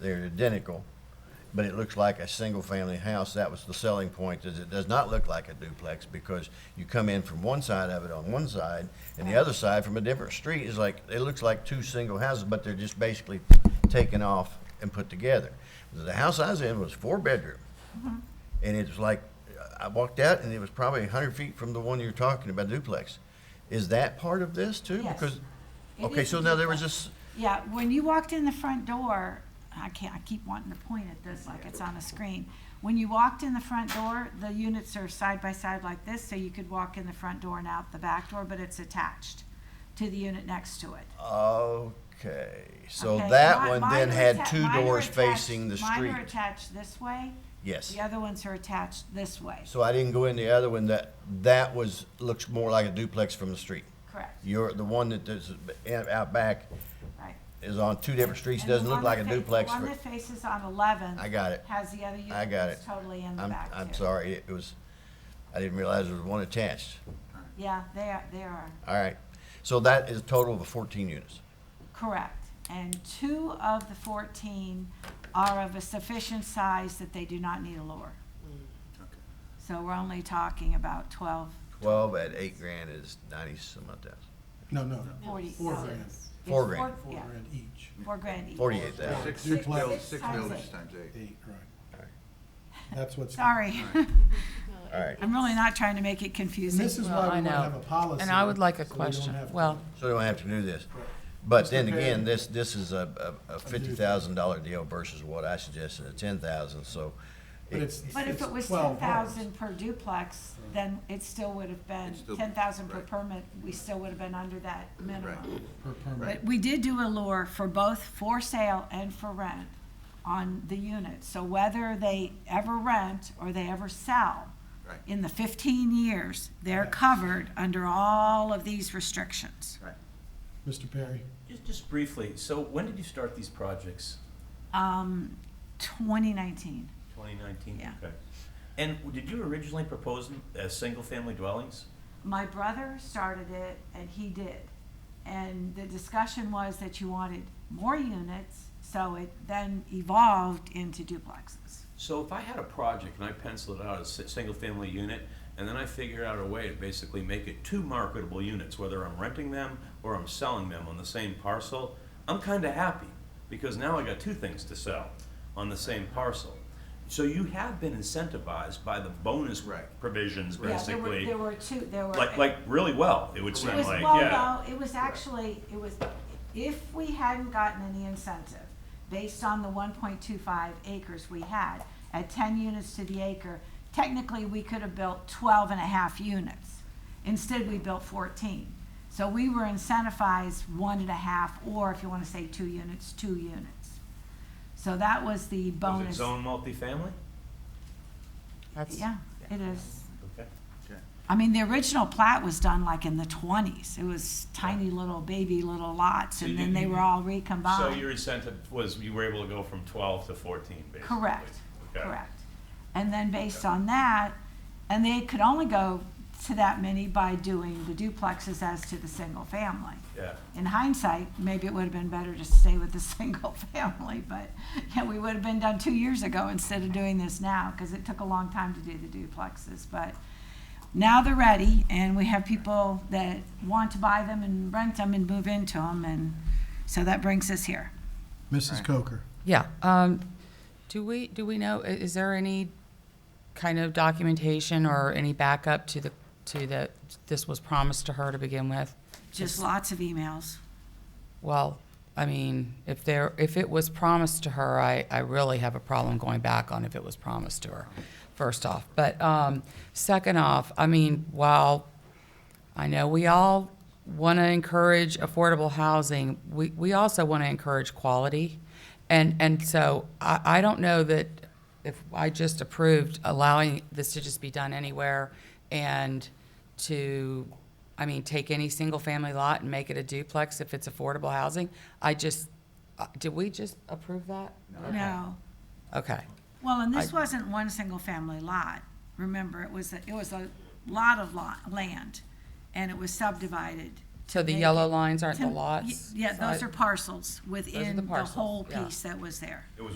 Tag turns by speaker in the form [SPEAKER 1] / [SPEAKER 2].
[SPEAKER 1] They're identical, but it looks like a single-family house. That was the selling point, is it does not look like a duplex because you come in from one side of it on one side and the other side from a different street is like, it looks like two single houses, but they're just basically taken off and put together. The house I was in was four-bedroom.
[SPEAKER 2] Mm-hmm.
[SPEAKER 1] And it was like, I walked out and it was probably hundred feet from the one you're talking about duplex. Is that part of this too?
[SPEAKER 2] Yes.
[SPEAKER 1] Because,
[SPEAKER 2] It
[SPEAKER 1] okay,
[SPEAKER 2] is
[SPEAKER 1] so
[SPEAKER 2] a
[SPEAKER 1] now there was
[SPEAKER 2] duplex.
[SPEAKER 1] this,
[SPEAKER 2] Yeah, when you walked in the front door, I can't, I keep wanting to point at this like it's on a screen. When you walked in the front door, the units are side by side like this, so you could walk in the front door and out the back door, but it's attached to the unit next to it.
[SPEAKER 1] okay, so
[SPEAKER 2] Okay,
[SPEAKER 1] that
[SPEAKER 2] mi-
[SPEAKER 1] one
[SPEAKER 2] mine
[SPEAKER 1] then
[SPEAKER 2] are
[SPEAKER 1] had
[SPEAKER 2] atta-
[SPEAKER 1] two
[SPEAKER 2] mine are
[SPEAKER 1] doors
[SPEAKER 2] attached-
[SPEAKER 1] facing the
[SPEAKER 2] Mine are
[SPEAKER 1] street.
[SPEAKER 2] attached this way,
[SPEAKER 1] Yes.
[SPEAKER 2] the other ones are attached this way,
[SPEAKER 1] So I didn't go in the other one that, that was, looks more like a duplex from the street.
[SPEAKER 2] correct,
[SPEAKER 1] Your, the one that is out back
[SPEAKER 2] right.
[SPEAKER 1] is on two different streets,
[SPEAKER 2] And the
[SPEAKER 1] doesn't look
[SPEAKER 2] one
[SPEAKER 1] like a
[SPEAKER 2] that fa-
[SPEAKER 1] duplex.
[SPEAKER 2] The one
[SPEAKER 1] for-
[SPEAKER 2] that faces on eleven.
[SPEAKER 1] I got it.
[SPEAKER 2] Has the other unit
[SPEAKER 1] I got
[SPEAKER 2] that's
[SPEAKER 1] it.
[SPEAKER 2] totally in the
[SPEAKER 1] I'm,
[SPEAKER 2] back
[SPEAKER 1] I'm
[SPEAKER 2] too.
[SPEAKER 1] sorry, it was, I didn't realize there was one attached.
[SPEAKER 2] Yeah, they are, they are,
[SPEAKER 1] All right, so that is a total of fourteen units.
[SPEAKER 2] correct. And two of the fourteen are of a sufficient size that they do not need a lower. So we're only talking about twelve,
[SPEAKER 1] Twelve at eight grand is ninety some odd thousand.
[SPEAKER 3] No, no,
[SPEAKER 2] forty.
[SPEAKER 3] four
[SPEAKER 2] no,
[SPEAKER 3] grand,
[SPEAKER 2] it's
[SPEAKER 1] Four grand.
[SPEAKER 2] four-
[SPEAKER 3] four
[SPEAKER 2] yeah,
[SPEAKER 3] grand each,
[SPEAKER 2] Four grand each.
[SPEAKER 1] Forty-eight thousand.
[SPEAKER 4] Six,
[SPEAKER 3] Six
[SPEAKER 4] six
[SPEAKER 3] times
[SPEAKER 4] buildings,
[SPEAKER 2] eight.
[SPEAKER 4] six buildings
[SPEAKER 2] Six
[SPEAKER 4] times eight.
[SPEAKER 3] eight, right. That's what's.
[SPEAKER 2] Sorry,
[SPEAKER 1] All right,
[SPEAKER 2] I'm really not trying to make it
[SPEAKER 3] And
[SPEAKER 2] confusing.
[SPEAKER 3] this is
[SPEAKER 5] Well,
[SPEAKER 3] why
[SPEAKER 5] I
[SPEAKER 3] we want to
[SPEAKER 5] know.
[SPEAKER 3] have a policy.
[SPEAKER 5] And I would like a
[SPEAKER 3] so we don't
[SPEAKER 5] question.
[SPEAKER 3] have to-
[SPEAKER 5] Well,
[SPEAKER 1] so they don't have to do this. But then again,
[SPEAKER 3] Mr. Perry.
[SPEAKER 1] this, this is a, a, a fifty thousand dollar deal versus what I suggested, a ten thousand, so.
[SPEAKER 3] But it's,
[SPEAKER 2] But if
[SPEAKER 3] it's
[SPEAKER 2] it was ten
[SPEAKER 3] 12 homes.
[SPEAKER 2] thousand per duplex, then it still would have been,
[SPEAKER 4] It's still-
[SPEAKER 2] ten thousand per
[SPEAKER 4] right.
[SPEAKER 2] permit, we still would have been under that minimum.
[SPEAKER 3] Per permit.
[SPEAKER 2] But we did do a lure for both for sale and for rent on the unit. So whether they ever rent or they ever sell,
[SPEAKER 4] Right.
[SPEAKER 2] in the fifteen years, they're covered under all of these restrictions.
[SPEAKER 3] Mr. Perry,
[SPEAKER 6] Just, just briefly, so when did you start these projects?
[SPEAKER 2] Um, twenty nineteen,
[SPEAKER 6] Twenty nineteen?
[SPEAKER 2] Yeah.
[SPEAKER 6] Okay. And w- did you originally propose them as single-family dwellings?
[SPEAKER 2] my brother started it and he did. And the discussion was that you wanted more units, so it then evolved into duplexes.
[SPEAKER 6] So if I had a project and I penciled it out as a single-family unit, and then I figure out a way to basically make it two marketable units, whether I'm renting them or I'm selling them on the same parcel, I'm kinda happy, because now I got two things to sell on the same parcel. So you have been incentivized by the bonus
[SPEAKER 4] Right.
[SPEAKER 6] provisions,
[SPEAKER 2] Yeah, there were-
[SPEAKER 6] basically.
[SPEAKER 2] There were two, there were.
[SPEAKER 6] Like, like really well, it would
[SPEAKER 2] It
[SPEAKER 6] seem
[SPEAKER 2] was,
[SPEAKER 6] like,
[SPEAKER 2] well,
[SPEAKER 6] yeah.
[SPEAKER 2] no, it was actually, it was, if we hadn't gotten any incentive, based on the one point two five acres we had, at ten units to the acre, technically, we could have built 12 and a half units. Instead, we built fourteen. So we were incentivized one and a half, or if you wanna say two units, two units. So that was the
[SPEAKER 6] Was it
[SPEAKER 2] bonus.
[SPEAKER 6] zone multifamily?
[SPEAKER 5] that's,
[SPEAKER 2] Yeah, it is.
[SPEAKER 6] Okay.
[SPEAKER 2] I mean, the original plat was done like in the twenties. It was tiny little baby little lots,
[SPEAKER 6] So
[SPEAKER 2] and
[SPEAKER 6] you-
[SPEAKER 2] then they were all recombined.
[SPEAKER 6] So your incentive was, you were able to go from twelve to fourteen, basically?
[SPEAKER 2] Correct,
[SPEAKER 6] Okay.
[SPEAKER 2] correct. And then based on that, and they could only go to that many by doing the duplexes as to the single family.
[SPEAKER 6] Yeah.
[SPEAKER 2] In hindsight, maybe it would have been better to stay with the single family, but, yeah, we would have been done two years ago instead of doing this now, because it took a long time to do the duplexes, but now they're ready, and we have people that want to buy them and rent them and move into them, and so that brings us here.
[SPEAKER 3] Mrs. Coker.
[SPEAKER 5] yeah. Um, do we, do we know, i- is there any kind of documentation or any backup to the, to the, this was promised to her to begin with?
[SPEAKER 2] Just lots of emails.
[SPEAKER 5] Well, I mean, if there, if it was promised to her, I, I really have a problem going back on if it was promised to her, first off. But, um, second off, I mean, while I know we all want to encourage affordable housing, we, we also want to encourage quality. And, and so I, I don't know that if I just approved allowing this to just be done anywhere and to, I mean, take any single-family lot and make it a duplex if it's affordable housing, I just, uh, did we just approve that?
[SPEAKER 2] No.
[SPEAKER 5] Okay.
[SPEAKER 2] Well, and this wasn't one single-family lot. Remember, it was, a- it was a lot of lot, land, and it was subdivided
[SPEAKER 5] So the
[SPEAKER 2] They-
[SPEAKER 5] yellow lines aren't the
[SPEAKER 2] Tim-
[SPEAKER 5] lots? Uh,
[SPEAKER 2] Yeah, those
[SPEAKER 5] side?
[SPEAKER 2] are parcels within the
[SPEAKER 5] parcels,
[SPEAKER 2] whole
[SPEAKER 5] yeah.
[SPEAKER 2] piece that was there.
[SPEAKER 6] It was